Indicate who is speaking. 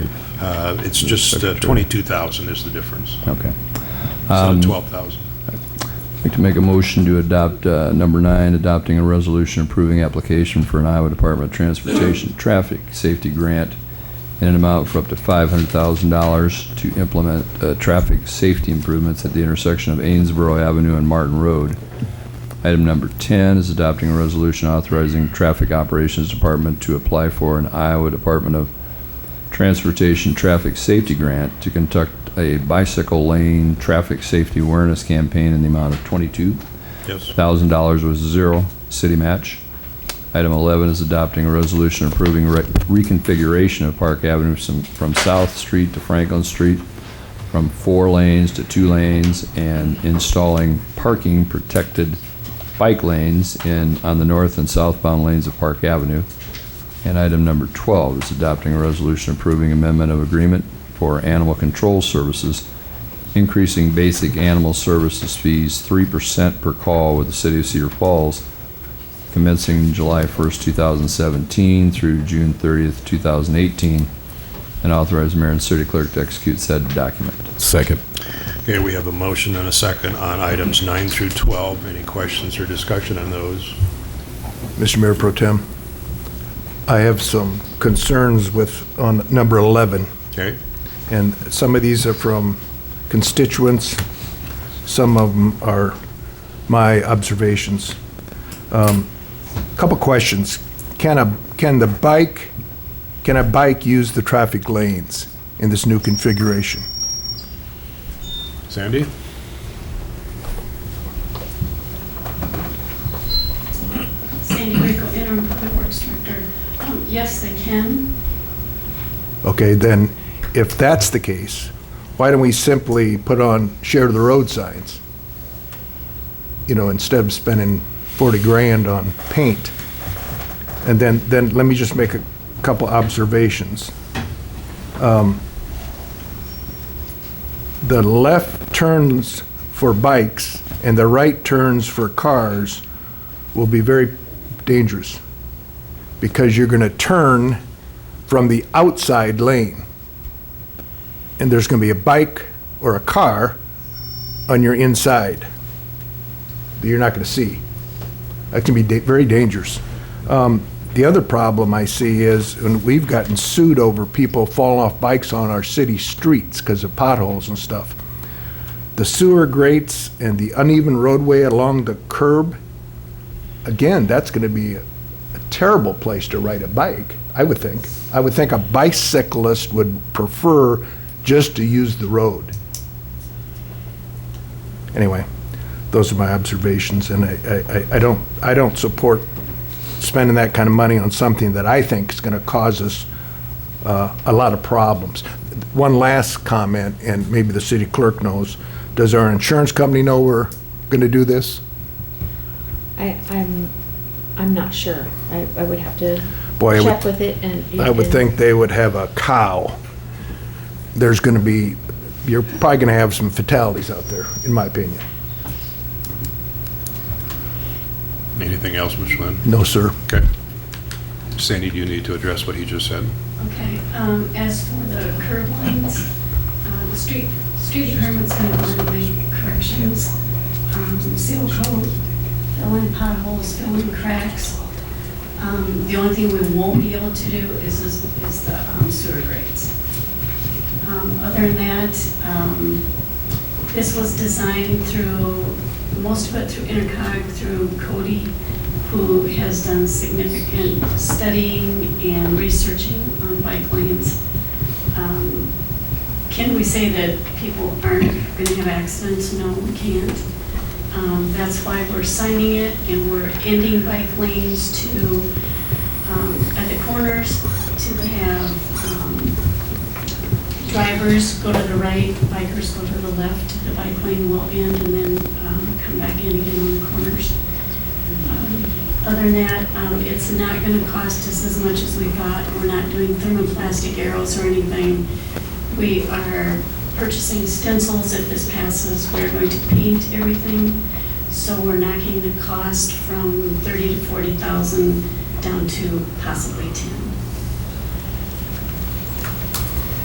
Speaker 1: Uh, It's just uh, 22,000 is the difference,
Speaker 2: Okay. Um,
Speaker 1: instead
Speaker 3: Um,
Speaker 1: of 12,000.
Speaker 2: I'd like to make a motion to adopt uh, number nine, adopting a resolution approving application for an Iowa Department of Transportation Traffic Safety Grant in an amount for up to $500,000 to implement uh, traffic safety improvements at the intersection of Amesboro Avenue and Martin Road. Item number 10 is adopting a resolution authorizing Traffic Operations Department to apply for an Iowa Department of Transportation Traffic Safety Grant to conduct a bicycle lane traffic safety awareness campaign in the amount of twenty-two
Speaker 1: Yes,
Speaker 2: thousand dollars with zero city match. Item eleven is adopting a resolution approving re- reconfiguration of Park Avenue some- from South Street to Franklin Street, from four lanes to two lanes, and installing parking protected bike lanes in, on the north and southbound lanes of Park Avenue. And item number 12 is adopting a resolution approving amendment of agreement for animal control services, increasing basic animal services fees 3% per call with the city of Cedar Falls, commencing July 1st, 2017 through June 30th, 2018, and authorize mayor and city clerk to execute said document.
Speaker 4: Second.
Speaker 1: okay, we have a motion and a second on items 9 through 12. Any questions or discussion on those?
Speaker 3: Mr. Mayor Pro Tem, I have some concerns with, on number 11,
Speaker 1: Okay,
Speaker 3: and some of these are from constituents, some of them are my observations. Um, Couple questions. Can a, can the bike, can a bike use the traffic lanes in this new configuration?
Speaker 1: Sandy?
Speaker 5: Sandy Rico, interim public works director. Um, Yes, they can.
Speaker 3: Okay, then, if that's the case, why don't we simply put on share the road signs? You know, instead of spending 40 grand on paint. And then, then let me just make a couple observations. Um, The left turns for bikes and the right turns for cars will be very dangerous because you're going to turn from the outside lane. And there's going to be a bike or a car on your inside that you're not going to see. That can be da- very dangerous. Um, The other problem I see is, and we've gotten sued over people falling off bikes on our city streets because of potholes and stuff. The sewer grates and the uneven roadway along the curb, again, that's going to be a terrible place to ride a bike, I would think. I would think a bicyclist would prefer just to use the road. Anyway, those are my observations, and I, I, I don't, I don't support spending that kind of money on something that I think is going to cause us uh, a lot of problems. One last comment, and maybe the city clerk knows, does our insurance company know we're going to do this?
Speaker 6: I, I'm, I'm not sure. I, I would have to
Speaker 3: Boy, I would-
Speaker 6: check with it and.
Speaker 3: I would
Speaker 6: and-
Speaker 3: think they would have a cow. There's going to be, you're probably going to have some fatalities out there, in my opinion.
Speaker 1: Anything else, Mr. Lynn?
Speaker 3: No, sir.
Speaker 1: Okay. Sandy, do you need to address what he just said?
Speaker 5: Okay, um, as for the curb lines, uh, the street, street department's going to make corrections, um, seal code, fill in potholes, fill in cracks. Um, The only thing we won't be able to do is, is is the um, sewer grates. Um, Other than that, um, this was designed through, most of it through Intercog, through Cody, who has done significant studying and researching on bike lanes. Um, Can we say that people aren't going to have accidents? No, we can't. Um, That's why we're signing it, and we're ending bike lanes to, um, at the corners, to have um, drivers go to the right, bikers go to the left, the bike lane will end and then um, come back in again on the corners. Um, Other than that, um, it's not going to cost us as much as we thought. We're not doing thermoplastic arrows or anything. We are purchasing stencils if this passes. We're going to paint everything. So we're knocking the cost from 30 to 40,000 down to possibly 10.